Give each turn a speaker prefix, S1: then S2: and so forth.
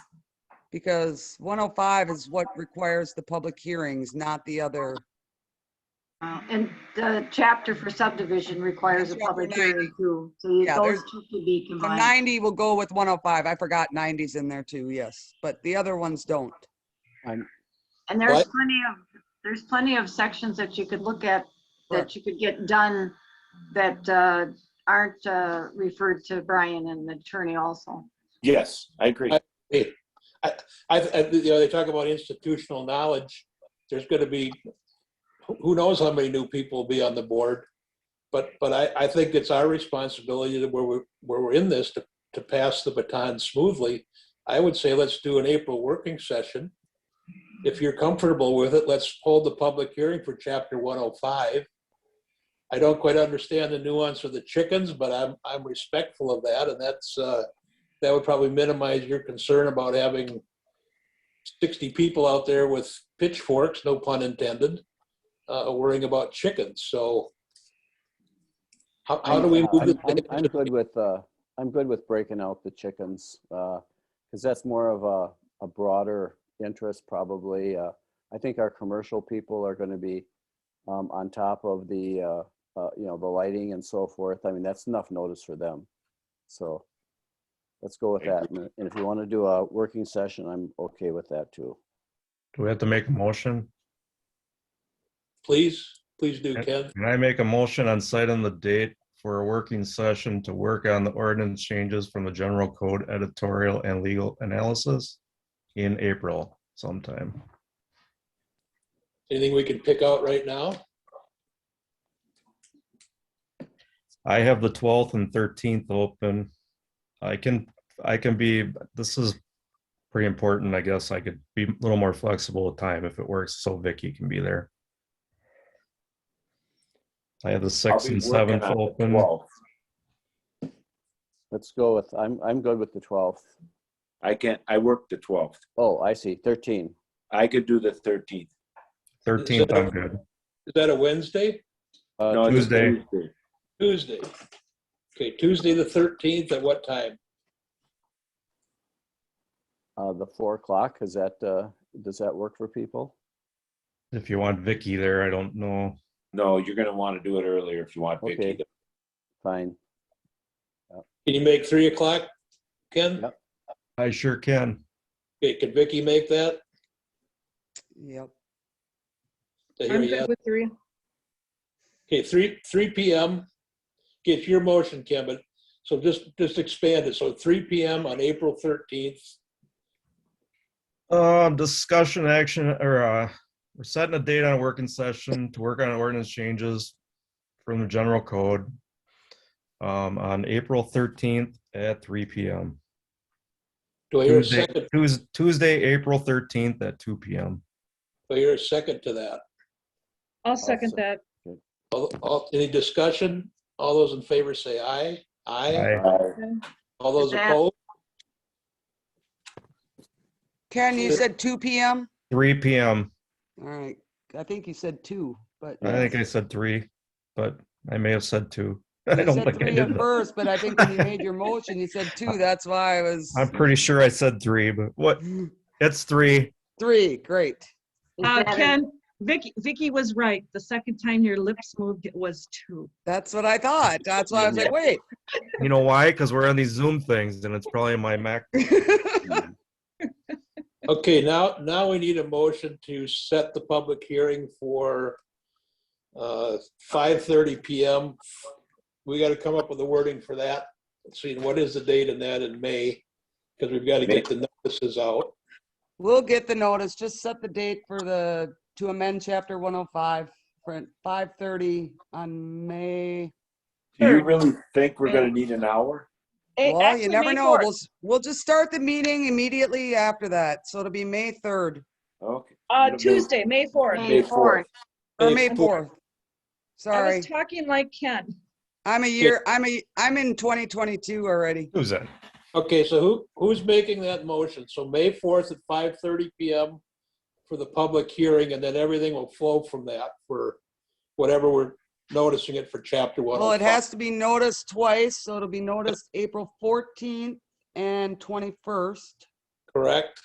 S1: Because 105 is what requires the public hearings, not the other.
S2: Uh, And the chapter for subdivision requires a
S1: Chapter
S2: public
S1: 90.
S2: hearing too. So
S1: Yeah,
S2: those
S1: there's-
S2: two could be
S1: The
S2: combined.
S1: 90 will go with 105. I forgot 90's in there too, yes. But the other ones don't.
S2: And there's
S3: What?
S2: plenty of, there's plenty of sections that you could look at, that
S1: Correct.
S2: you could get done that uh, aren't uh, referred to Brian and the attorney also.
S4: Yes, I agree.
S3: Hey, I, I, I- uh, you know, they talk about institutional knowledge. There's going to be, who- who knows how many new people will be on the board? But, but I, I think it's our responsibility that where we're, where we're in this to, to pass the baton smoothly. I would say let's do an April working session. If you're comfortable with it, let's hold the public hearing for chapter 105. I don't quite understand the nuance of the chickens, but I'm, I'm respectful of that, and that's, uh, that would probably minimize your concern about having 60 people out there with pitchforks, no pun intended, uh, worrying about chickens. So how, how do we
S5: I'm-
S3: move?
S5: I'm- I'm,
S3: the-
S5: I'm good with, uh, I'm good with breaking out the chickens, uh, cause that's more of a, a broader interest probably. Uh, I think our commercial people are gonna be, um, on top of the, uh, uh, you know, the lighting and so forth. I mean, that's enough notice for them. So let's go with that. And and if you wanna do a working session, I'm okay with that too.
S6: Do we have to make a motion?
S3: Please, please do, Ken.
S6: Can I make a motion on site and the date for a working session to work on the ordinance changes from the general code editorial and legal analysis in April sometime?
S3: Anything we can pick out right now?
S6: I have the twelfth and thirteenth open. I can, I can be, this is pretty important, I guess. I could be a little more flexible with time if it works, so Vicky can be there. I have the sixth and seventh open.
S4: Well,
S5: Let's go with, I'm, I'm good with the twelfth.
S4: I can't, I work the 12th.
S5: Oh, I see, thirteen.
S4: I could do the 13th.
S6: Thirteenth, I'm good.
S3: Is that a Wednesday?
S5: Uh,
S4: No, it's a
S6: Tuesday.
S4: Tuesday.
S3: Tuesday? Okay, Tuesday, the 13th, at what time?
S5: uh, the four o'clock, is that, uh, does that work for people?
S6: If you want Vicky there, I don't know.
S4: No, you're gonna want to do it earlier if you want Vicky.
S5: Okay. Fine.
S3: Can you make 3 o'clock, Ken?
S5: Yep.
S6: I sure can.
S3: Okay, can Vicky make that?
S1: Yep.
S3: I hear
S7: I'm
S3: yes.
S7: good with three.
S3: Okay, three, three PM. Get your motion, Kim, but, so just, just expand it. So three PM on April thirteenth.
S6: Uh, discussion action or uh, we're setting a date on a working session to work on ordinance changes from the general code um, on April thirteenth at three PM.
S3: Do I hear a
S6: Tuesday,
S3: second,
S6: Tues- Tuesday, April thirteenth at two PM.
S3: do I hear a second to that?
S7: I'll second that.
S3: All, all, any discussion? All those in favor say aye. Aye.
S6: I
S4: Uh,
S3: All those
S2: Is that-
S3: opposed?
S1: Ken, you
S3: Sure.
S1: said 2 PM?
S6: Three PM.
S1: All right. I think you said 2, but.
S6: I think I said three, but I may have said two. I
S1: You
S6: don't
S1: said
S6: think I
S1: three at
S6: did. that.
S1: first, but I think when you made your motion, you said two. That's why I was
S6: I'm pretty sure I said three, but what? It's three.
S1: three. Great.
S2: Is
S7: Uh,
S2: that a-
S7: Ken, Vicky, Vicky was right. The second time your lips moved it was two.
S1: That's what I thought. That's why I was like, wait.
S6: You know why? Because we're on these Zoom things and it's probably my Mac
S3: Okay, now, now we need a motion to set the public hearing for uh, 5:30 PM. We got to come up with the wording for that. Let's see, what is the date in that in May? Because we've got to get the notices out.
S1: We'll get the notice. Just set the date for the, to amend chapter 105 for 5:30 on May.
S4: Do you really think we're gonna need an hour?
S1: Well, you never know. We'll, s- we'll just start the meeting immediately after that. So it'll be May 3rd
S4: Okay.
S7: Uh, Tuesday, May fourth.
S2: May
S4: May fourth.
S2: 4th.
S1: or
S3: May
S1: May 4th.
S7: I
S1: Sorry,
S7: was talking like Ken.
S1: I'm a year, I'm a, I'm in 2022 already.
S6: Tuesday.
S3: Okay, so who, who's making that motion? So May 4th at 5:30 PM for the public hearing, and then everything will flow from that for whatever we're noticing it for chapter one. oh
S1: Well, it has to be noticed twice, so it'll be noticed April 14th and 21st.
S3: Correct?